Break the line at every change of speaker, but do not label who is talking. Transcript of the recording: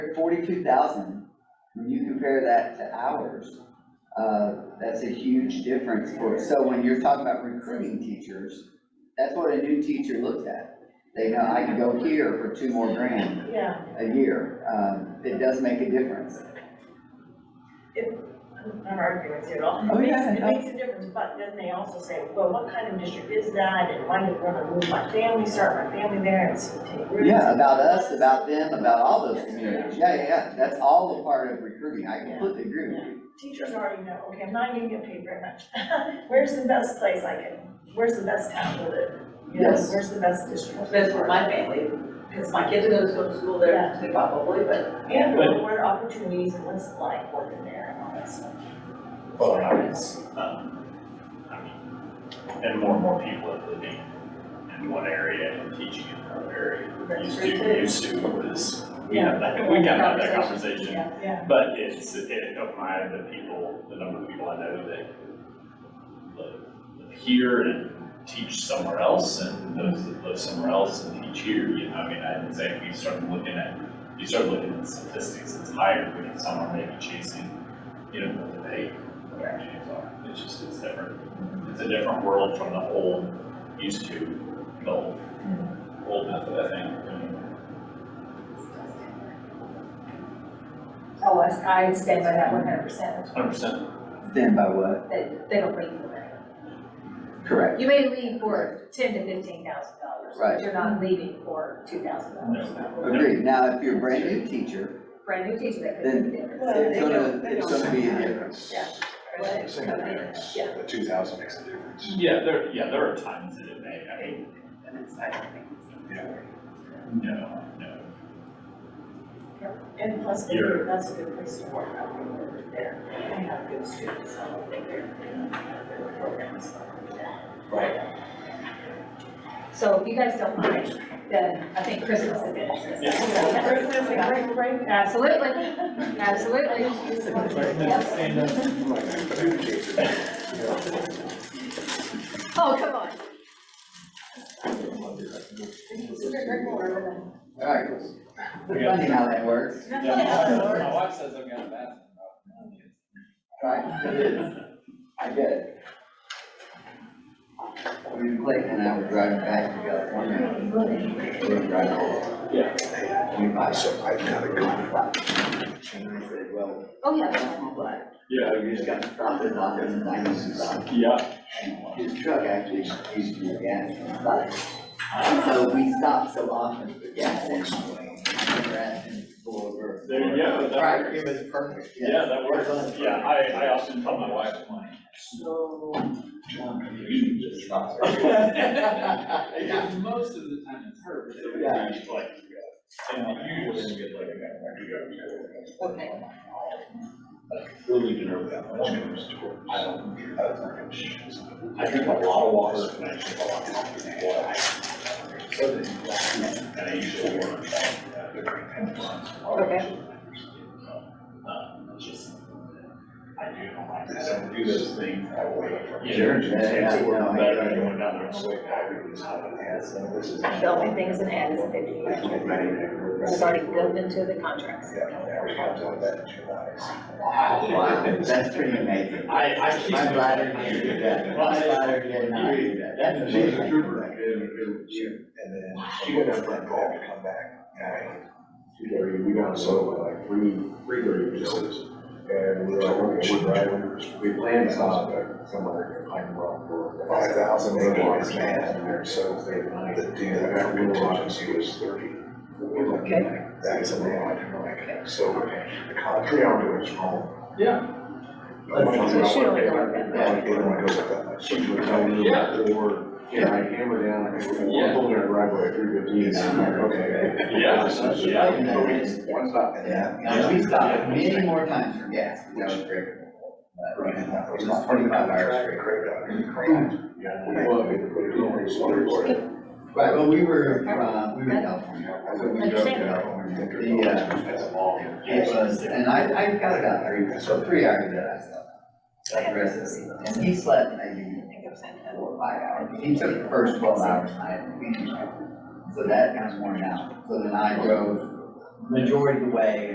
Forty-two thousand, when you compare that to ours, uh, that's a huge difference for, so when you're talking about recruiting teachers, that's what a new teacher looks at. They know, I can go here for two more grand
Yeah,
a year, um, it does make a difference.
I'm not arguing with you at all.
Oh,
It makes,
yeah,
it
no.
makes a difference, but then they also say, well, what kind of district is that? And why did I want to move my family, start my family there and s- take roots?
Yeah, about us, about them, about all those communities, yeah, yeah, yeah, that's all a part of recruiting, I completely agree with you.
Teachers already know, okay, I'm not gonna get paid very much. Where's the best place I can, where's the best town with it? You know,
Yes.
Where's the best district?
That's where my family, because my kids are gonna go to school there, so probably, but
And what are opportunities and what's like working there and all that stuff?
Well, and I was, um, I mean, and more and more people are living in one area and teaching in another area.
That's
Used
true,
to,
too.
used to was, we have that, we can have that conversation.
yeah.
Yeah.
But it's, it opened my eye to people, the number of people I know that live- live here and teach somewhere else and those that live somewhere else and teach here, you know, I mean, I'd say if you started looking at, you start looking at statistics, it's higher when it's someone maybe chasing, you know, what they, what their dreams are. It's just, it's different. It's a different world from the old, used to, the old, old method, I think. I mean,
Oh, I, I stand by that one hundred percent,
Hundred percent.
Stand by what?
that they don't leave for that.
Correct.
You may leave for ten to fifteen thousand dollars,
Right.
but you're not leaving for two thousand dollars.
Agreed, now, if you're a brand new teacher,
Brand new teacher that could
Then-
be different.
Well,
it's
they
gonna,
don't- they
it's
don't
gonna be a
have that.
difference.
Yeah.
Right.
The same difference,
Yeah.
the two thousand makes a difference.
Yeah, there, yeah, there are times that it may, I mean,
And it's, I don't think it's.
Yeah.
no, no.
And plus, they-
You're-
that's a good place to work out when we're there. They have good students, I don't think they're, they're programs.
Right.
So if you guys don't mind, then I think Chris wants to finish this.
We're- we're- we're- we're-
Absolutely, absolutely. Yep. Oh, come on.
Alright, funny how that works,
My wife says I've got a bathroom problem.
right? It is. I get it. We were Clayton and I were driving back to California. We were driving over.
Yeah.
We bought some.
So I've got a gun.
And I said, well,
Oh, yeah.
that's my black.
Yeah,
You just gotta stop it, lock it, and I just stopped.
yeah,
His truck actually used to be a gas station. And so we stopped so often for gas anyway. I never asked him to pull over.
There you go, that
Right,
works.
it was perfect.
yeah, that works, yeah, I, I often tell my wife, I'm like, so. um, you just stop." Because most of the time it's her, but it would be
Yeah.
like, and you just get like, I
Okay.
Really didn't know that much. I don't, I I drink a lot of water and I drink a lot of coffee and water. And I usually work.
Okay.
Um, it's just, I do, I don't do those things. I wait for-
Sure.
Yeah, I work better than going down there. and wait.
The only things that add is fifty years. It's already built into the contracts.
Wow, that's pretty amazing.
I, I keep.
My bladder didn't do that. My bladder did not do that. That's
She's a
amazing.
trooper. And then she got up that call to come back. And She's like, we got so like three, three thirty visitors. And we were like, okay, we're driving, we planned to stop at somewhere in Pine Rock for five thousand acres, man. And they're so they're not- The dude that got real watches, he was thirty. We're like, That is a lot, and we're like, so the concrete out there is wrong.
Yeah.
So she only got that.
Yeah, it don't wanna go like that much. She would tell me,
Yeah.
or, yeah, I hammer down, I go,
Yeah.
we're pulling our driveway at three fifteen, and I'm like, okay.
Yeah.
So it's
Yeah.
like, no, it's One stop and
Yeah,
then.
now we stopped many more times for gas. That was great. But
Right, and that
It
was
was
not
twenty-five hours straight.
Craig. Yeah. We love it, but it's only just one word.
Right, well, we were, uh, we were in California.
I wouldn't joke about when we think of
The, uh,
it. That's all.
It was, and I, I got about three, so three hours that I slept. Like the rest of the season. And he slept maybe four, or five hours. He took the first twelve hours and I had to finish. So that kind of worn out. So then I drove majority of the way